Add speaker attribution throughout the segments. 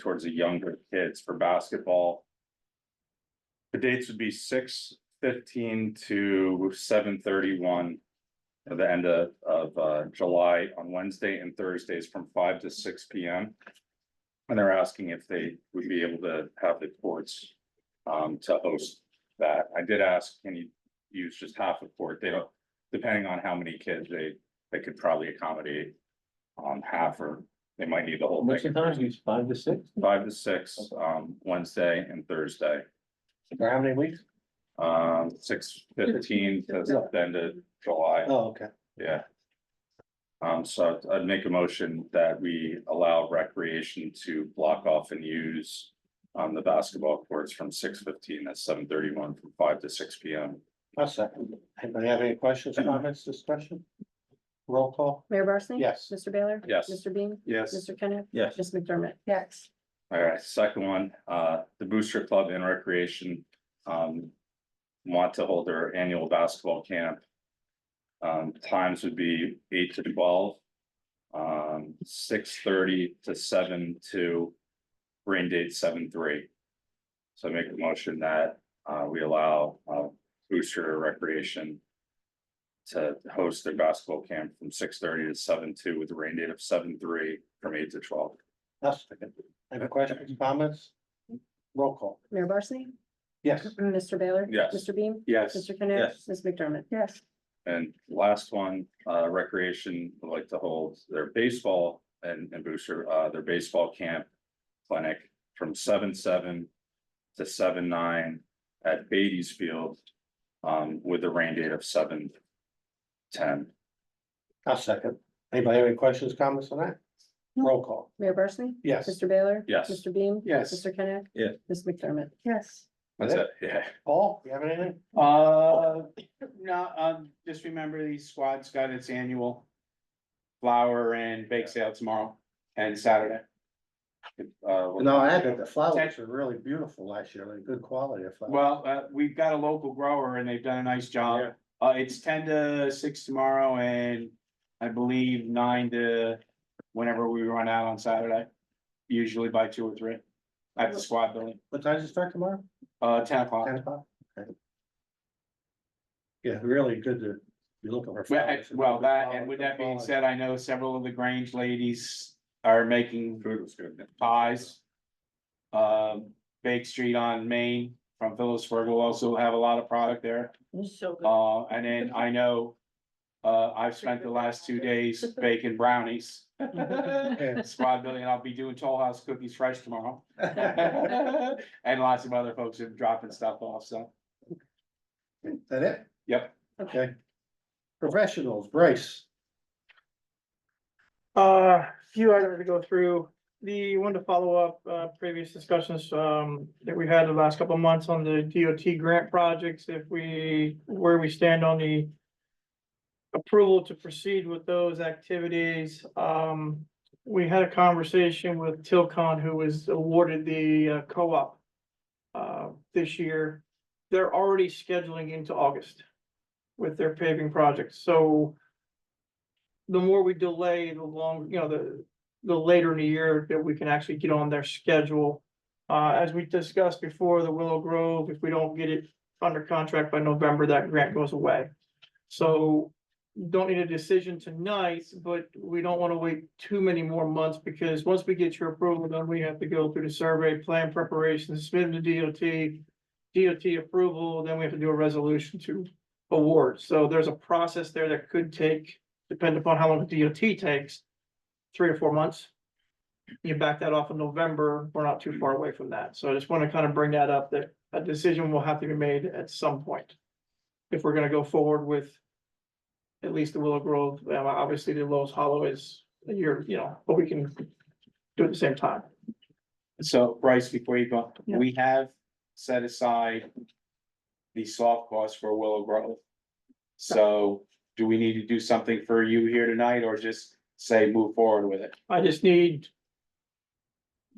Speaker 1: towards the younger kids for basketball. The dates would be six fifteen to seven thirty-one. At the end of, of, uh, July on Wednesday and Thursdays from five to six P M. And they're asking if they would be able to have the courts, um, to host that. I did ask, can you use just half a court? They don't, depending on how many kids they, they could probably accommodate. Um, half or they might need the whole
Speaker 2: What's
Speaker 1: thing.
Speaker 2: the time? Use five to six?
Speaker 1: Five to six, um, Wednesday and Thursday,
Speaker 2: For how many weeks?
Speaker 1: um, six fifteen to the end of July,
Speaker 2: Oh, okay.
Speaker 1: yeah. Um, so I'd- I'd make a motion that we allow recreation to block off and use. Um, the basketball courts from six fifteen to seven thirty one from five to six P M.
Speaker 2: A second. Anybody have any questions, comments, discussion? Roll call?
Speaker 3: Mayor Barsney?
Speaker 2: Yes.
Speaker 3: Mr. Baylor?
Speaker 1: Yes.
Speaker 3: Mr. Bean?
Speaker 1: Yes.
Speaker 3: Mr. Kenneth?
Speaker 4: Yes.
Speaker 3: Ms. McDermott?
Speaker 5: yes,
Speaker 1: All right, second one, uh, the Booster Club and Recreation, um. Want to hold their annual basketball camp. Um, times would be eight to twelve. Um, six thirty to seven to rain date seven three. So I make a motion that, uh, we allow, uh, Booster Recreation. To host their basketball camp from six thirty to seven two with a rain date of seven three from eight to twelve.
Speaker 2: A second. Any questions, comments? Roll call?
Speaker 3: Mayor Barsney?
Speaker 2: Yes.
Speaker 3: Mr. Baylor?
Speaker 1: Yes.
Speaker 3: Mr. Bean?
Speaker 1: Yes.
Speaker 3: Mr. Kenneth?
Speaker 4: Yes.
Speaker 3: Ms. McDermott?
Speaker 5: yes,
Speaker 1: And last one, uh, recreation would like to hold their baseball and, and booster, uh, their baseball camp clinic from seven, seven to seven, nine at Beatty's Field, um, with a rain date of seven, ten.
Speaker 2: A second. Anybody have any questions, comments on that? Roll call?
Speaker 3: Mayor Barsney?
Speaker 2: Yes.
Speaker 3: Mr. Baylor?
Speaker 1: Yes.
Speaker 3: Mr. Bean?
Speaker 2: Yes.
Speaker 3: Mr. Kenneth?
Speaker 4: Yes.
Speaker 3: Ms. McDermott?
Speaker 5: yes.
Speaker 1: That's it, yeah.
Speaker 2: Paul, you have anything?
Speaker 6: Uh, no, um, just remember the squad's got its annual flower and bake sale tomorrow and Saturday.
Speaker 1: Uh, well,
Speaker 2: No, I had it. The flowers are really beautiful last year, like good quality of flowers.
Speaker 6: Well, uh, we've got a local grower and they've done a nice job. Uh, it's ten to six tomorrow and I believe nine to whenever we run out on Saturday. Usually by two or three at the squad building,
Speaker 2: What time does it start tomorrow?
Speaker 6: uh, ten o'clock.
Speaker 2: Ten o'clock? Okay. Yeah, really good to be looking for.
Speaker 6: Well, I-
Speaker 2: flowers.
Speaker 6: well, that, and with
Speaker 2: Good
Speaker 6: that being
Speaker 2: quality.
Speaker 6: said, I know several of the Grange ladies are making
Speaker 1: Food was good.
Speaker 6: pies. Um, Bake Street on Main from Phyllis Fergal also have a lot of product there.
Speaker 5: So good.
Speaker 6: Uh, and then I know. Uh, I've spent the last two days baking brownies. Squad building, I'll be doing Toll House cookies fresh tomorrow. And lots of other folks are dropping stuff off, so.
Speaker 2: Is That it?
Speaker 6: Yep.
Speaker 2: Okay. Professionals, Bryce.
Speaker 7: Uh, few items to go through. The one to follow up, uh, previous discussions, um, that we had the last couple of months on the DOT grant projects, if we, where we stand on the approval to proceed with those activities. Um, we had a conversation with Tilcon, who was awarded the uh, co-op uh, this year. They're already scheduling into August with their paving projects, so the more we delay, the long, you know, the, the later in the year that we can actually get on their schedule. Uh, as we discussed before, the Willow Grove, if we don't get it under contract by November, that grant goes away. So don't need a decision tonight, but we don't want to wait too many more months because once we get your approval, then we have to go through the survey, plan preparation, submit to DOT. DOT approval, then we have to do a resolution to award. So there's a process there that could take depending upon how long the DOT takes, three or four months. You back that off in November, we're not too far away from that. So I just want to kind of bring that up, that a decision will have to be made at some point. If we're gonna go forward with at least the Willow Grove, uh, obviously the Lowe's Hollow is a year, you know, but we can do it at the same time.
Speaker 6: So Bryce, before you go,
Speaker 7: Yeah.
Speaker 6: we have set aside the soft cost for Willow Grove. So do we need to do something for you here tonight or just say move forward with it?
Speaker 7: I just need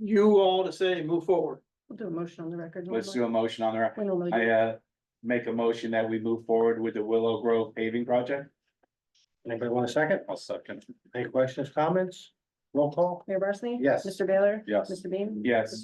Speaker 7: you all to say move forward.
Speaker 3: We'll do a motion on the record.
Speaker 6: Let's do a motion on there.
Speaker 3: We normally do.
Speaker 6: I uh make a motion that we move forward with the Willow Grove paving project.
Speaker 2: Anybody want a second?
Speaker 1: I'll second.
Speaker 2: Any questions, comments? Roll call?
Speaker 3: Mayor Barsney?
Speaker 2: Yes.
Speaker 3: Mr. Baylor?
Speaker 1: Yes.
Speaker 3: Mr. Bean?
Speaker 6: Yes.